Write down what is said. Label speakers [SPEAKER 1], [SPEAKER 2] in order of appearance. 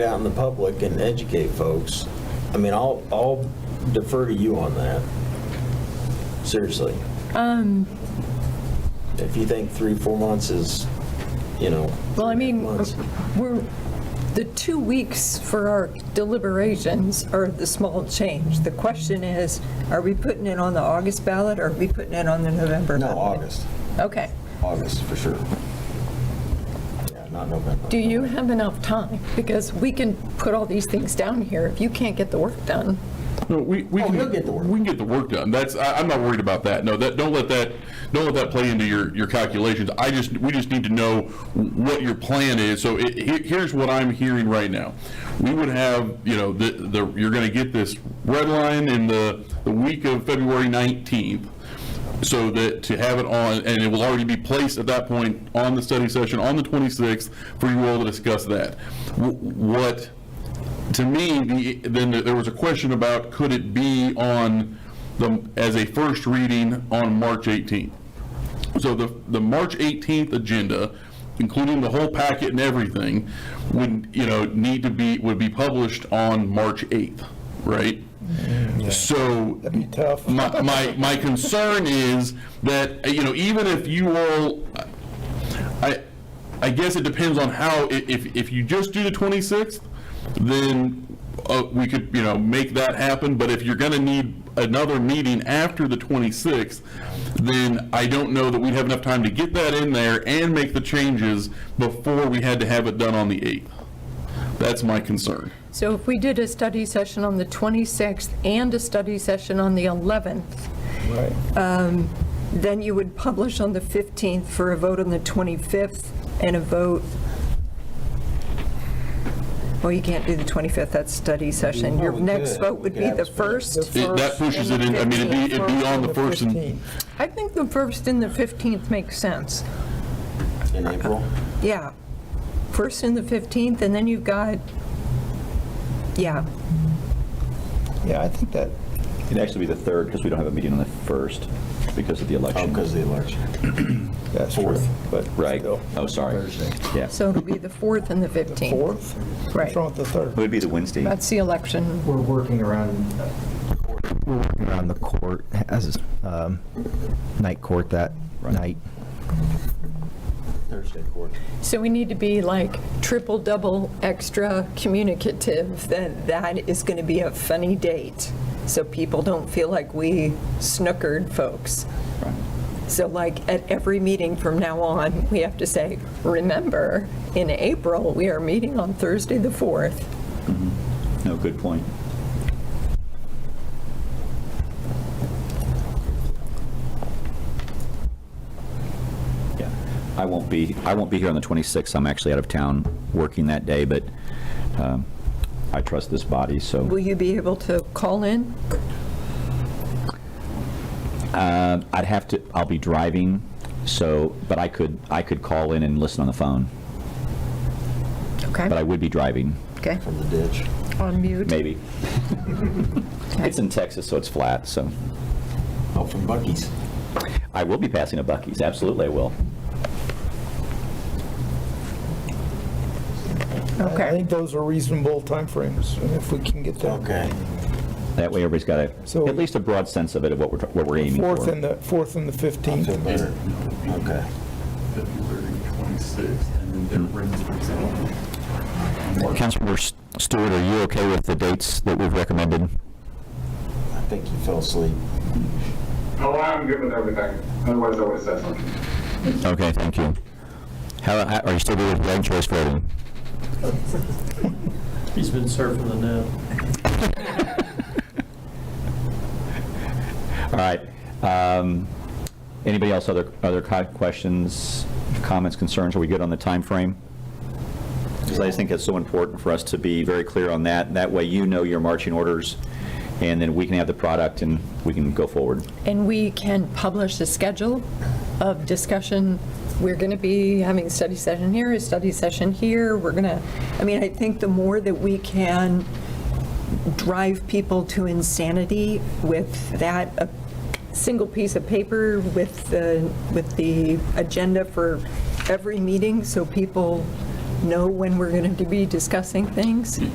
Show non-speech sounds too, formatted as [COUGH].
[SPEAKER 1] out in the public and educate folks. I mean, I'll, I'll defer to you on that. Seriously.
[SPEAKER 2] Um,
[SPEAKER 1] If you think three, four months is, you know.
[SPEAKER 2] well, I mean,
[SPEAKER 1] months.
[SPEAKER 2] we're, the two weeks for our deliberations are the small change. The question is, are we putting it on the August ballot or are we putting it on the November?
[SPEAKER 1] No,
[SPEAKER 2] ballot?
[SPEAKER 1] August,
[SPEAKER 2] Okay.
[SPEAKER 1] August for sure. Yeah, not November.
[SPEAKER 2] Do you have enough time? Because we can put all these things down here. If you can't get the work done,
[SPEAKER 3] No, we, we
[SPEAKER 1] Oh,
[SPEAKER 3] can,
[SPEAKER 1] we'll get the work.
[SPEAKER 3] we can get the work done. That's, I, I'm not worried about that. No, that, don't let that, don't let that play into your, your calculations. I just, we just need to know what your plan is. So it, he- here's what I'm hearing right now. We would have, you know, the, the, you're gonna get this red line in the, the week of February 19th. So that, to have it on, and it will already be placed at that point on the study session on the 26th for you all to discuss that. Wh- What, to me, the, then there was a question about, could it be on the, as a first reading on March 18th? So the, the March 18th agenda, including the whole packet and everything, would, you know, need to be, would be published on March 8th, right? So. That'd be tough. My, my, my concern is that, uh, you know, even if you all, I, I guess it depends on how, i- if, if you just do the 26th, then uh, we could, you know, make that happen, but if you're going to need another meeting after the 26th, then I don't know that we'd have enough time to get that in there and make the changes before we had to have it done on the 8th. That's my concern.
[SPEAKER 2] so if we did a study session on the 26th and a study session on the 11th, um, then you would publish on the 15th for a vote on the 25th and a vote, well, you can't do the 25th, that's study session. Your
[SPEAKER 1] Well, we
[SPEAKER 2] next
[SPEAKER 1] could.
[SPEAKER 2] vote would
[SPEAKER 1] We
[SPEAKER 2] be
[SPEAKER 1] could
[SPEAKER 2] the
[SPEAKER 1] have a special-
[SPEAKER 2] 1st.
[SPEAKER 3] It- That pushes it in, I mean, it'd be, it'd be on the first and,
[SPEAKER 2] I think the 1st and the 15th makes sense.
[SPEAKER 1] In April?
[SPEAKER 2] Yeah. First and the 15th, and then you've got, yeah,
[SPEAKER 4] Yeah, I think that. It'd actually be the third because we don't have a meeting on the first because of the
[SPEAKER 1] Oh,
[SPEAKER 4] election.
[SPEAKER 1] because of the election.
[SPEAKER 4] [CLEARS THROAT] That's
[SPEAKER 1] Fourth.
[SPEAKER 4] But, right.
[SPEAKER 5] still.
[SPEAKER 4] Oh, sorry. Yeah.
[SPEAKER 2] so it'll be the 4th and the 15th.
[SPEAKER 5] Fourth?
[SPEAKER 2] Right.
[SPEAKER 5] What's wrong with the
[SPEAKER 4] It
[SPEAKER 5] third?
[SPEAKER 4] would be the Wednesday.
[SPEAKER 2] That's the election.
[SPEAKER 6] We're working around, we're working around the court, as, um, night court that night.
[SPEAKER 1] Thursday court.
[SPEAKER 2] So we need to be like triple, double, extra communicative, that that is going to be a funny date, so people don't feel like we snookered folks. So like at every meeting from now on, we have to say, remember, in April, we are meeting on Thursday, the 4th.
[SPEAKER 4] No, good point. Yeah, I won't be, I won't be here on the 26th. I'm actually out of town working that day, but um, I trust this body, so.
[SPEAKER 2] Will you be able to call in?
[SPEAKER 4] Um, I'd have to, I'll be driving, so, but I could, I could call in and listen on the phone,
[SPEAKER 2] Okay.
[SPEAKER 4] but I would be driving,
[SPEAKER 2] Okay.
[SPEAKER 1] From the ditch.
[SPEAKER 2] On mute.
[SPEAKER 4] maybe. It's in Texas, so it's flat, so
[SPEAKER 1] Oh, from Bucky's.
[SPEAKER 4] I will be passing a Bucky's, absolutely I will.
[SPEAKER 5] I think those are reasonable timeframes, and if we can get that.
[SPEAKER 1] Okay.
[SPEAKER 4] That way everybody's got
[SPEAKER 5] So-
[SPEAKER 4] a, at least a broad sense of it, of what we're, what we're aiming for.
[SPEAKER 5] Fourth and the, fourth and the
[SPEAKER 1] I feel
[SPEAKER 5] 15th.
[SPEAKER 1] better. Okay.
[SPEAKER 7] February 26th, and then their rent is
[SPEAKER 4] Councilmember S- Stewart, are you okay with the dates that we've recommended?
[SPEAKER 1] I think you fell asleep.
[SPEAKER 8] No, I'm good with everything. Otherwise, I would have said something.
[SPEAKER 4] Okay, thank you. How, how- are you still good with ranked choice voting?
[SPEAKER 7] He's been surfing the net.
[SPEAKER 4] All right. um, Anybody else, other, other co- questions, comments, concerns? Are we good on the time frame? Because I just think that's so important for us to be very clear on that. That way you know your marching orders, and then we can have the product and we can go forward.
[SPEAKER 2] And we can publish a schedule of discussion. We're going to be having a study session here, a study session here. We're going to, I mean, I think the more that we can drive people to insanity with that, a single piece of paper with the, with the agenda for every meeting, so people know when we're going to be discussing things?